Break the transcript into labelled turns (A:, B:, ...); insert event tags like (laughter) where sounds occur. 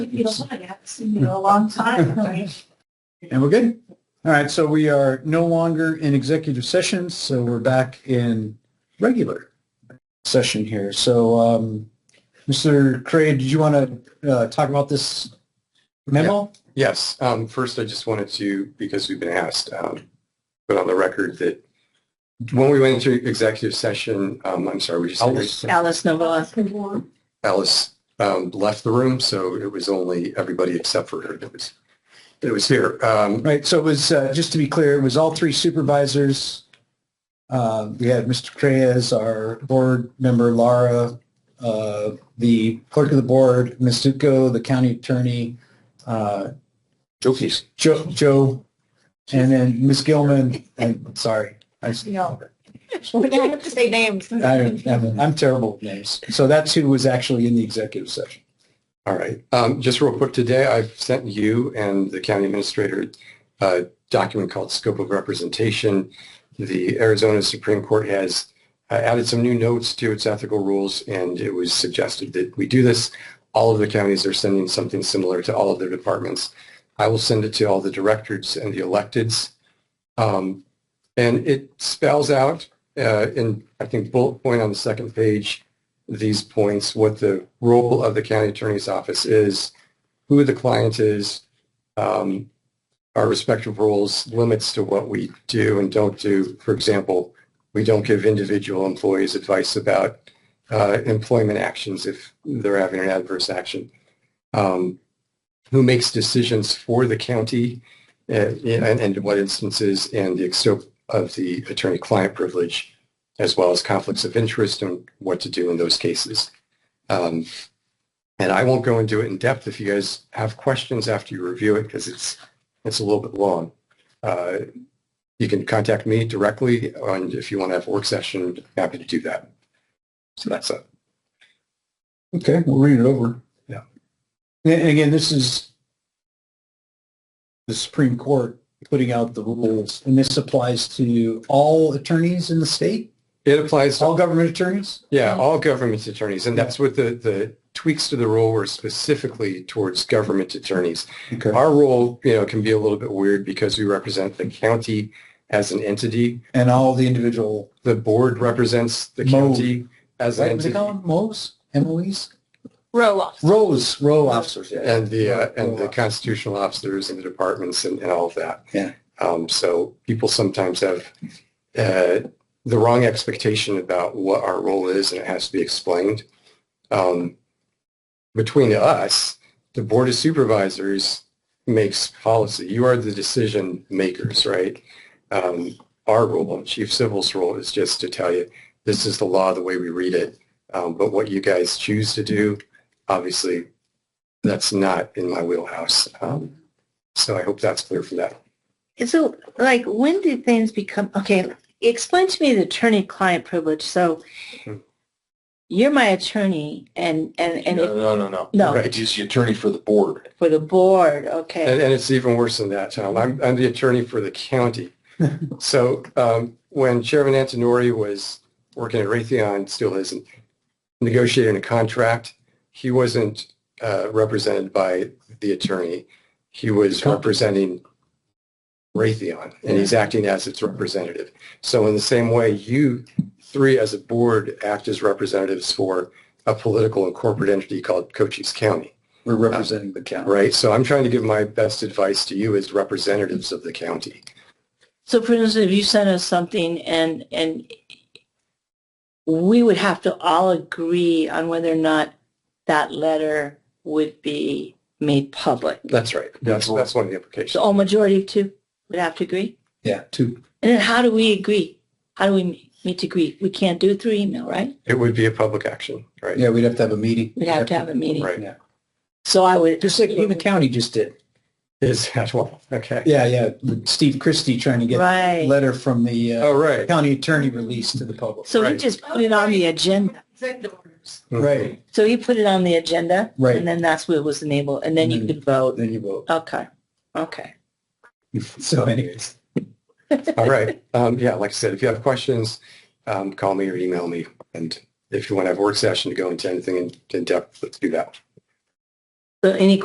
A: You know, I haven't seen you in a long time, right?
B: And we're good. All right, so we are no longer in executive session, so we're back in regular session here. So, um, Mr. Cray, did you want to, uh, talk about this memo?
C: Yes. Um, first, I just wanted to, because we've been asked, um, put on the record that when we went into executive session, um, I'm sorry, we just
A: Alice Novoa.
C: Alice um, left the room, so it was only everybody except for her that was that was here. Um,
B: Right, so it was, uh, just to be clear, it was all three supervisors. Uh, we had Mr. Cray as our board member, Laura, uh, the clerk of the board, Ms. Zuko, the county attorney, uh,
C: Joe Keys.
B: Joe, Joe, and then Ms. Gilman, and, sorry. I,
A: No. We don't have to say names.
B: I, I'm, I'm terrible with names. So that's who was actually in the executive session.
C: All right. Um, just real quick today, I've sent you and the county administrator a document called Scope of Representation. The Arizona Supreme Court has uh, added some new notes to its ethical rules, and it was suggested that we do this. All of the counties are sending something similar to all of their departments. I will send it to all the directors and the electeds. Um, and it spells out uh, in, I think, bullet point on the second page, these points, what the role of the county attorney's office is, who the client is, um, our respective roles, limits to what we do and don't do. For example, we don't give individual employees advice about uh, employment actions if they're having an adverse action. Um, who makes decisions for the county uh, and, and in what instances, and the extent of the attorney-client privilege as well as conflicts of interest and what to do in those cases. Um, and I won't go into it in depth if you guys have questions after you review it because it's it's a little bit long. Uh, you can contact me directly, and if you want to have a work session, happy to do that. So that's it.
B: Okay, we'll read it over.
C: Yeah.
B: And again, this is the Supreme Court putting out the rules, and this applies to all attorneys in the state,
C: It applies to
B: all government attorneys?
C: Yeah, all government attorneys, and that's what the, the tweaks to the rule were specifically towards government attorneys.
B: Okay.
C: Our role, you know, can be a little bit weird because we represent the county as an entity.
B: And all the individual,
C: The board represents the
B: Mo.
C: county as
B: what
C: an
B: do they
C: entity.
B: call them, MOs, MOEs?
A: Roll
B: Rows, row officers, yeah.
C: And the, uh, and
B: Mo.
C: the constitutional officers and the departments and, and all of that.
B: Yeah.
C: Um, so people sometimes have, uh, the wrong expectation about what our role is and it has to be explained. Um, between us, the board of supervisors makes policy. You are the decision makers, right? Um, our role, chief civil's role is just to tell you, this is the law, the way we read it. Um, but what you guys choose to do, obviously, that's not in my wheelhouse. Um, so I hope that's clear for that.
D: So, like, when did things become, okay, explain to me the attorney-client privilege. So
C: Hmm.
D: you're my attorney and, and, and if-
E: No, no, no,
D: No.
C: Right.
E: He's the attorney for the board.
D: for the board, okay.
C: And, and it's even worse than that, Tom. I'm, I'm the attorney for the county. so um, when Chairman Antonori was working at Raytheon, still isn't, negotiating a contract, he wasn't uh, represented by the attorney. He was
B: Company.
C: representing Raytheon, and he's acting as its representative. So in the same way, you three as a board act as representatives for a political and corporate entity called Cochise County.
B: We're representing the county.
C: Right, so I'm trying to give my best advice to you as representatives of the county.
D: So for instance, if you sent us something and, and we would have to all agree on whether or not that letter would be made public.
C: That's right. That's, that's one of the implications.
D: So all majority of two would have to agree?
B: Yeah, two.
D: And then how do we agree? How do we meet to agree? We can't do it through email, right?
C: It would be a public action, right?
B: Yeah, we'd have to have a meeting.
D: We'd have to have a meeting.
C: Right.
D: So I would.
B: Just like the county just did.
C: Is that one? Okay.
B: Yeah, yeah, Steve Christie trying to get a
D: Right.
B: letter from the uh,
C: Oh, right.
B: county attorney released to the public.
D: So he
C: Right.
D: just put it on the agenda.
A: Executive orders.
B: Right,
D: So he put it on the agenda.
B: Right.
D: And then that's what was enabled. And then you
B: Mhm.
D: could vote.
B: then you vote. (laughs)
D: Okay. Okay.
B: So anyways,
C: (laughs) All right. Um, yeah, like I said, if you have questions, um, call me or email me. And if you want to have a work session to go into anything in- in depth, let's do that.
D: So any